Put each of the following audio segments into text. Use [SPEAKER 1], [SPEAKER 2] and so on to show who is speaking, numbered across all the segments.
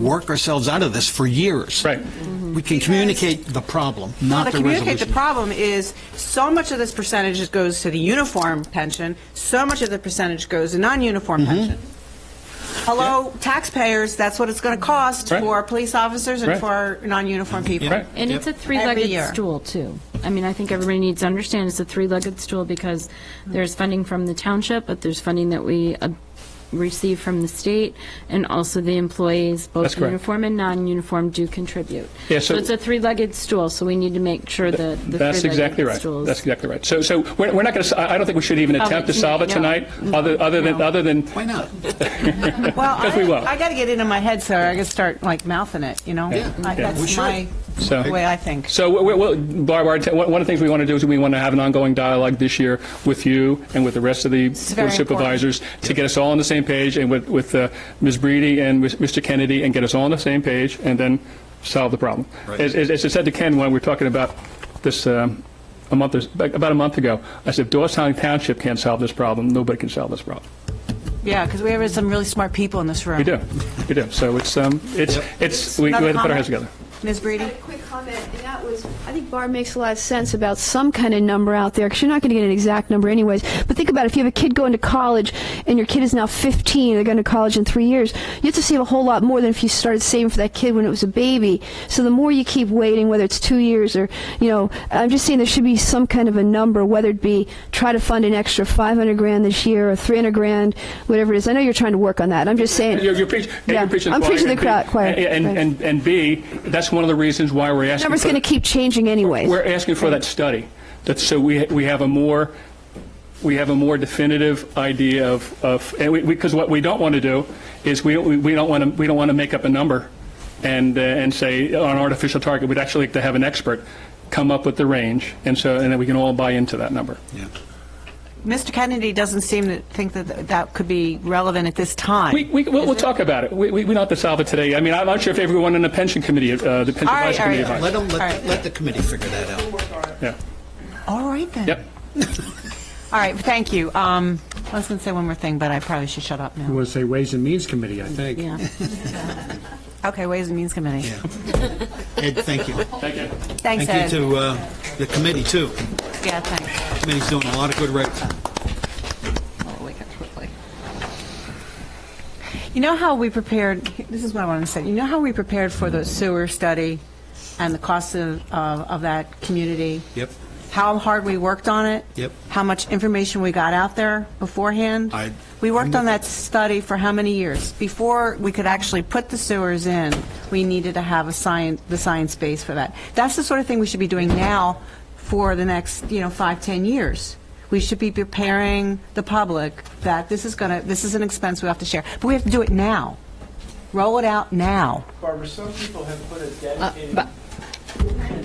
[SPEAKER 1] work ourselves out of this for years.
[SPEAKER 2] Right.
[SPEAKER 1] We can communicate the problem, not the
[SPEAKER 3] Well, to communicate the
[SPEAKER 1] resolution.
[SPEAKER 3] problem is, so much of this percentage goes to the uniform pension, so much of the percentage goes to non-uniform
[SPEAKER 2] Mm-hmm.
[SPEAKER 3] pension. Hello, taxpayers, that's what it's going to cost
[SPEAKER 2] Right.
[SPEAKER 3] for police officers and
[SPEAKER 2] Right.
[SPEAKER 3] for non-uniform people.
[SPEAKER 2] Right.
[SPEAKER 4] And it's a
[SPEAKER 3] Every year.
[SPEAKER 4] three-legged stool, too. I mean, I think everybody needs to understand it's a three-legged stool because there's funding from the township, but there's funding that we uh, receive from the state, and also the employees,
[SPEAKER 2] That's
[SPEAKER 4] both
[SPEAKER 2] correct.
[SPEAKER 4] uniform and non-uniform, do contribute.
[SPEAKER 2] Yeah, so-
[SPEAKER 4] So it's a three-legged stool, so we need to make sure that the
[SPEAKER 2] That's exactly
[SPEAKER 4] three-legged
[SPEAKER 2] right.
[SPEAKER 4] stool is
[SPEAKER 2] That's exactly right. So, so we're, we're not going to, I don't think we should even attempt to solve it
[SPEAKER 4] Oh, no.
[SPEAKER 2] tonight, other, other than, other than,
[SPEAKER 1] Why not?
[SPEAKER 3] Well,
[SPEAKER 2] Because we
[SPEAKER 3] I-
[SPEAKER 2] will.
[SPEAKER 3] I got to get it in my head, so I got to start like mouthing it, you know? I-
[SPEAKER 1] We
[SPEAKER 3] That's
[SPEAKER 1] should.
[SPEAKER 3] my
[SPEAKER 2] So-
[SPEAKER 3] way I think.
[SPEAKER 2] so, we- we- we'll- Barb, our- one of the things we want to do is we want to have an ongoing dialogue this year with you and with the rest of the
[SPEAKER 3] very
[SPEAKER 2] board supervisors to get us all on the same page, and with, with uh, Ms. Breedy and with Mr. Kennedy, and get us all on the same page, and then solve the problem.
[SPEAKER 1] Right.
[SPEAKER 2] As, as as I said to Ken when we were talking about this, um, a month, or- about a month ago, I said, if Doylestown Township can't solve this problem, nobody can solve this problem.
[SPEAKER 3] Yeah, because we have some really smart people in this room.
[SPEAKER 2] We do, we do. So it's, um, it's, it's, we we have
[SPEAKER 3] Another
[SPEAKER 2] to put our
[SPEAKER 3] comment?
[SPEAKER 2] heads together.
[SPEAKER 3] Ms. Breedy?
[SPEAKER 5] I had a quick comment, and that was, I think Barb makes a lot of sense about some kind of number out there, because you're not going to get an exact number anyways. But think about it, if you have a kid going to college, and your kid is now 15, they're going to college in three years, you have to save a whole lot more than if you started saving for that kid when it was a baby. So the more you keep waiting, whether it's two years or, you know, I'm just saying there should be some kind of a number, whether it be try to fund an extra 500 grand this year or 300 grand, whatever it is. I know you're trying to work on that. I'm just saying.
[SPEAKER 2] You're, you're preaching.
[SPEAKER 5] Yeah.
[SPEAKER 2] You're preaching
[SPEAKER 5] I'm
[SPEAKER 2] choir,
[SPEAKER 5] preaching to
[SPEAKER 2] and
[SPEAKER 5] the crowd.
[SPEAKER 2] B,
[SPEAKER 5] choir.
[SPEAKER 2] And,
[SPEAKER 5] Right.
[SPEAKER 2] and, and, and B, that's one of the reasons why we're asking.
[SPEAKER 5] number's
[SPEAKER 2] for-
[SPEAKER 5] going to keep changing anyways.
[SPEAKER 2] We're asking for that study. That's, so we, we have a more, we have a more definitive idea of, of, and we, because what we don't want to do is we, we we don't want to, we don't want to make up a number and, uh, and say on artificial target, we'd actually like to have an expert come up with the range. And so, and then we can all buy into that number.
[SPEAKER 3] Mr. Kennedy doesn't seem to think that th- that could be relevant at this time.
[SPEAKER 2] We, we, we'll, we'll talk about it. We, we we don't have to solve it today. I mean, I'm not sure if everyone in the pension committee, uh, the pension
[SPEAKER 3] All right,
[SPEAKER 2] advisory committee.
[SPEAKER 3] all right.
[SPEAKER 2] advised.
[SPEAKER 1] Let them,
[SPEAKER 3] All
[SPEAKER 1] let,
[SPEAKER 3] right.
[SPEAKER 1] let the committee figure that out.
[SPEAKER 2] Yeah.
[SPEAKER 3] All right, then.
[SPEAKER 2] Yep.
[SPEAKER 3] All right, thank you. Um, I was going to say one more thing, but I probably should shut up now.
[SPEAKER 6] was a Ways and Means Committee, I think.
[SPEAKER 3] Okay, Ways and Means Committee.
[SPEAKER 1] Ed, thank you.
[SPEAKER 3] Thanks,
[SPEAKER 1] Thank you
[SPEAKER 3] Ed.
[SPEAKER 1] to uh, the committee, too.
[SPEAKER 3] Yeah, thanks.
[SPEAKER 1] Committee's doing a lot of good right.
[SPEAKER 3] I'll wake up quickly. You know how we prepared, this is what I want to say, you know how we prepared for the sewer study and the cost of, of of that community?
[SPEAKER 1] Yep.
[SPEAKER 3] How hard we worked on it?
[SPEAKER 1] Yep.
[SPEAKER 3] How much information we got out there beforehand?
[SPEAKER 1] I-
[SPEAKER 3] We worked on that study for how many years? Before we could actually put the sewers in, we needed to have a science, the science base for that. That's the sort of thing we should be doing now for the next, you know, five, 10 years. We should be preparing the public that this is going to, this is an expense we have to share. But we have to do it now. Roll it out now.
[SPEAKER 7] Barbara, some people have put a
[SPEAKER 3] Uh,
[SPEAKER 7] dedicated.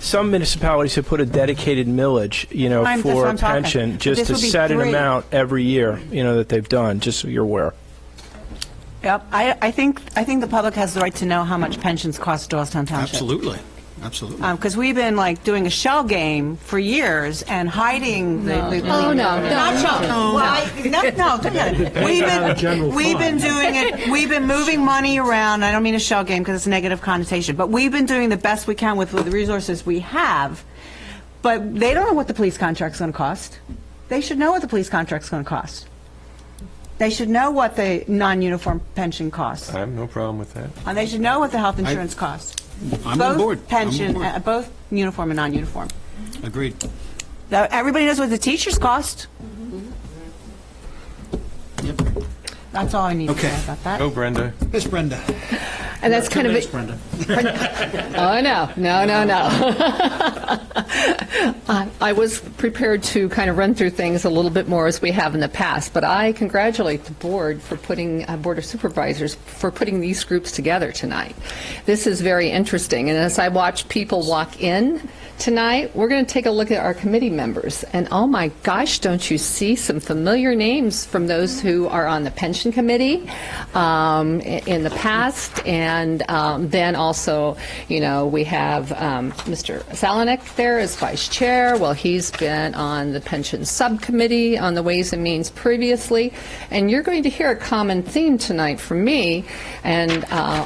[SPEAKER 7] Some municipalities have put a dedicated millage, you know,
[SPEAKER 3] I'm- that's what
[SPEAKER 7] for
[SPEAKER 3] I'm
[SPEAKER 7] a
[SPEAKER 3] talking.
[SPEAKER 7] pension,
[SPEAKER 3] But
[SPEAKER 7] just
[SPEAKER 3] this
[SPEAKER 7] to
[SPEAKER 3] would be
[SPEAKER 7] set an
[SPEAKER 3] three.
[SPEAKER 7] amount every year, you know, that they've done, just so you're aware.
[SPEAKER 3] Yep, I, I think, I think the public has the right to know how much pensions cost Doylestown Township.
[SPEAKER 1] Absolutely, absolutely.
[SPEAKER 3] Because Um, we've been like doing a shell game for years and hiding the. Oh, no, no. Not shell, well, I- not- no, don't get it. We've been, we've been doing it, we've been moving money around, I don't mean a shell game because it's a negative connotation, but we've been doing the best we can with with the resources we have. But they don't know what the police contract's going to cost. They should know what the police contract's going to cost. They should know what the non-uniform pension costs.
[SPEAKER 8] I have no problem with that.
[SPEAKER 3] And they should know what the health insurance costs.
[SPEAKER 1] I'm on board.
[SPEAKER 3] Both
[SPEAKER 1] I'm on
[SPEAKER 3] pension,
[SPEAKER 1] board.
[SPEAKER 3] uh, both uniform and non-uniform.
[SPEAKER 1] Agreed.
[SPEAKER 3] Now, Everybody knows what the teachers cost.
[SPEAKER 1] Yep.
[SPEAKER 3] That's all I need to
[SPEAKER 1] Okay.
[SPEAKER 3] say about that.
[SPEAKER 8] Go, Brenda.
[SPEAKER 1] Miss Brenda.
[SPEAKER 9] And that's kind of,
[SPEAKER 1] Miss
[SPEAKER 9] a-
[SPEAKER 1] Brenda.
[SPEAKER 9] oh, no, no, no, no. I- I was prepared to kind of run through things a little bit more as we have in the past, but I congratulate the board for putting, uh, Board of Supervisors, for putting these groups together tonight. This is very interesting, and as I watch people walk in Tonight, we're going to take a look at our committee members. And oh my gosh, don't you see some familiar names from those who are on the pension committee um, i- in the past? And um, then also, you know, we have um, Mr. Salonik there as vice chair. Well, he's been on the pension subcommittee on the Ways and Means previously. And you're going to hear a common theme tonight from me. And uh,